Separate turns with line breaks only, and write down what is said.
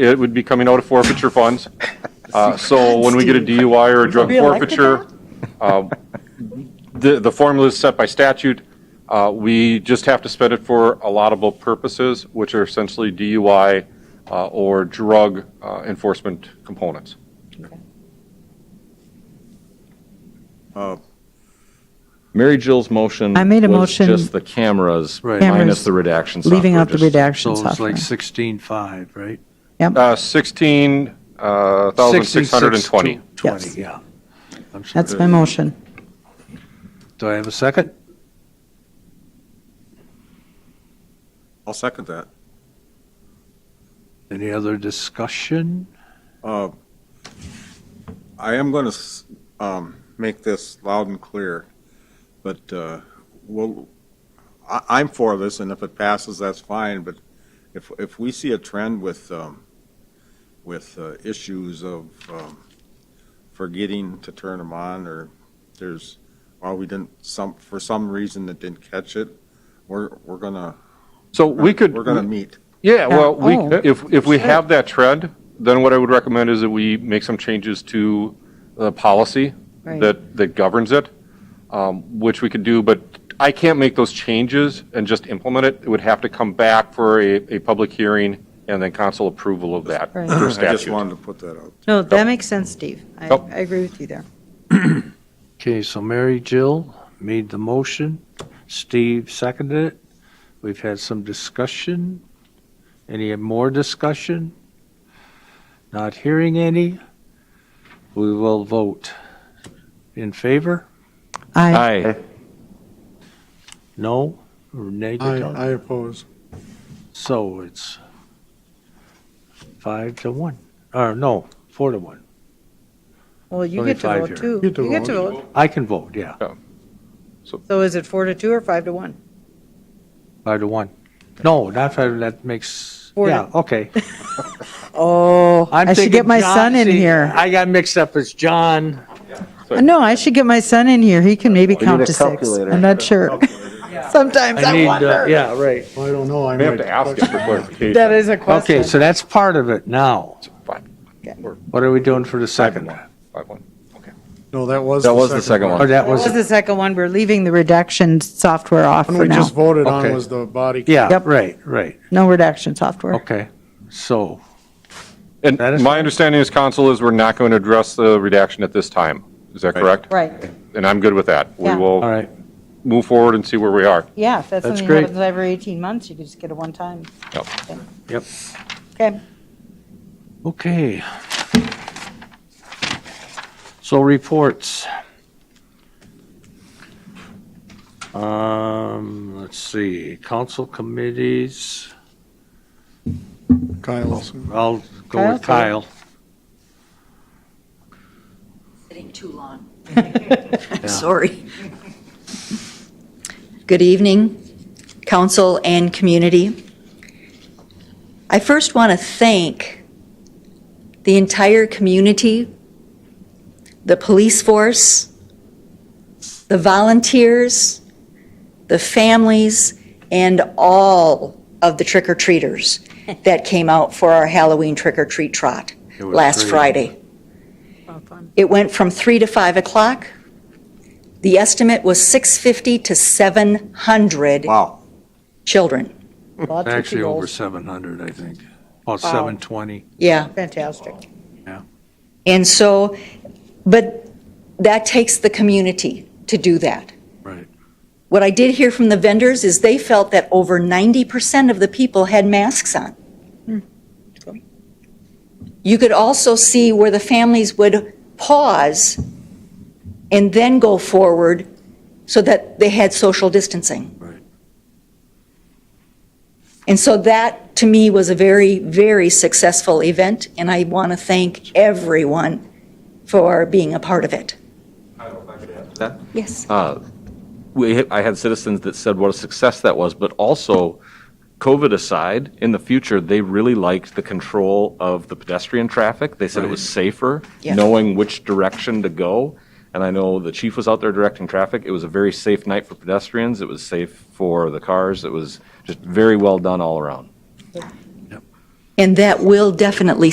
it would be coming out of forfeiture funds. Uh, So when we get a DUI or a drug
Are we elected
forfeiture, uh, the, the formula is set by statute. Uh, We just have to spend it for allowable purposes, which are essentially DUI uh, or drug uh, enforcement components.
Mary Jill's motion.
I made a
was
motion-
Just the cameras
Right.
minus
Cameras,
the redaction software.
leaving out the
just-
redaction
So it's
software.
like 16.5, right?
Uh, 16,620.
20,
Yes.
yeah. I'm sorry.
That's my motion.
Do I have a second?
I'll second that.
Any other discussion?
Uh, I am going to make this loud and clear, but uh, we'll, I- I'm for this, and if it passes, that's fine, but if, if we see a trend with, um, with uh, issues of um, forgetting to turn them on, or there's, or we didn't, some, for some reason that didn't catch it, we're, we're gonna,
So we could.
we're gonna meet.
Yeah, well, we,
Oh.
if, if we have that trend, then what I would recommend is that we make some changes to the policy
Right.
that, that governs it, um, which we could do, but I can't make those changes and just implement it. It would have to come back for a, a public hearing and then council approval of that
Right.
through
I just
statute.
wanted to put that out.
No, that makes sense, Steve. I,
Yep.
I agree with you there.
Okay, so Mary Jill made the motion, Steve seconded it. We've had some discussion. Any more discussion? Not hearing any. We will vote. In favor?
I,
Aye.
No? Or
I,
negative?
I oppose.
So it's five to one, or no, four to one.
well, you get to
25
vote
here.
too.
You do
You get to
vote.
vote.
I can vote, yeah,
So is it four to two or five to one?
five to one. No, not five, that makes,
Four to-
yeah, okay.
Oh,
I'm
I should
thinking
get my
John-
son in
see,
here.
I got mixed up as John.
No, I should get my son in here. He can maybe count
a
to six.
calculator.
I'm not sure. Sometimes
I
I
need, uh,
wonder.
yeah, right.
Well, I don't know. I
We have
might
to ask it for
That
clarification.
is a
Okay,
question.
so that's part of it now.
Five-
What are we doing for the second one?
five one. Okay.
No, that was.
That was the second
Or
one.
that
What was
was,
the second one? We're leaving the redaction software off
One
for
we
now.
just voted on
Okay.
was the body.
yeah,
Yep.
right, right,
No redaction software.
okay. So,
And
That is
my understanding is council is we're not going to address the redaction at this time. Is that
Right.
correct?
Right,
And I'm good with that. We
Yeah.
all
will
right,
move forward and see where we are.
yeah, if that's
That's
something that
great.
happens every 18 months, you could just get a one-time.
Yep.
thing.
Yep.
Okay,
okay. So reports. Um, let's see, council committees.
Kyle's.
I'll go with
Kyle,
Kyle.
Sitting too long. Sorry. Good evening, council and community. I first want to thank the entire community, the police force, the volunteers, the families, and all of the trick-or-treaters that came out for our Halloween trick-or-treat trot
It was
last
great.
Friday. It went from 3 to 5 o'clock. The estimate was 650 to 700
Wow.
children.
lots of
Actually, over
people.
700, I think. About 720.
Yeah.
Fantastic.
And so, but that takes the community to do that.
Right.
What I did hear from the vendors is they felt that over 90% of the people had masks on. You could also see where the families would pause and then go forward so that they had social distancing.
Right.
And so that, to me, was a very, very successful event, and I want to thank everyone for being a part of it.
that?
Yes.
We, I had citizens that said what a success that was, but also, COVID aside, in the future, they really liked the control of the pedestrian traffic. They said it was safer,
Yeah.
knowing which direction to go. And I know the chief was out there directing traffic. It was a very safe night for pedestrians. It was safe for the cars. It was just very well done all around.
And that will definitely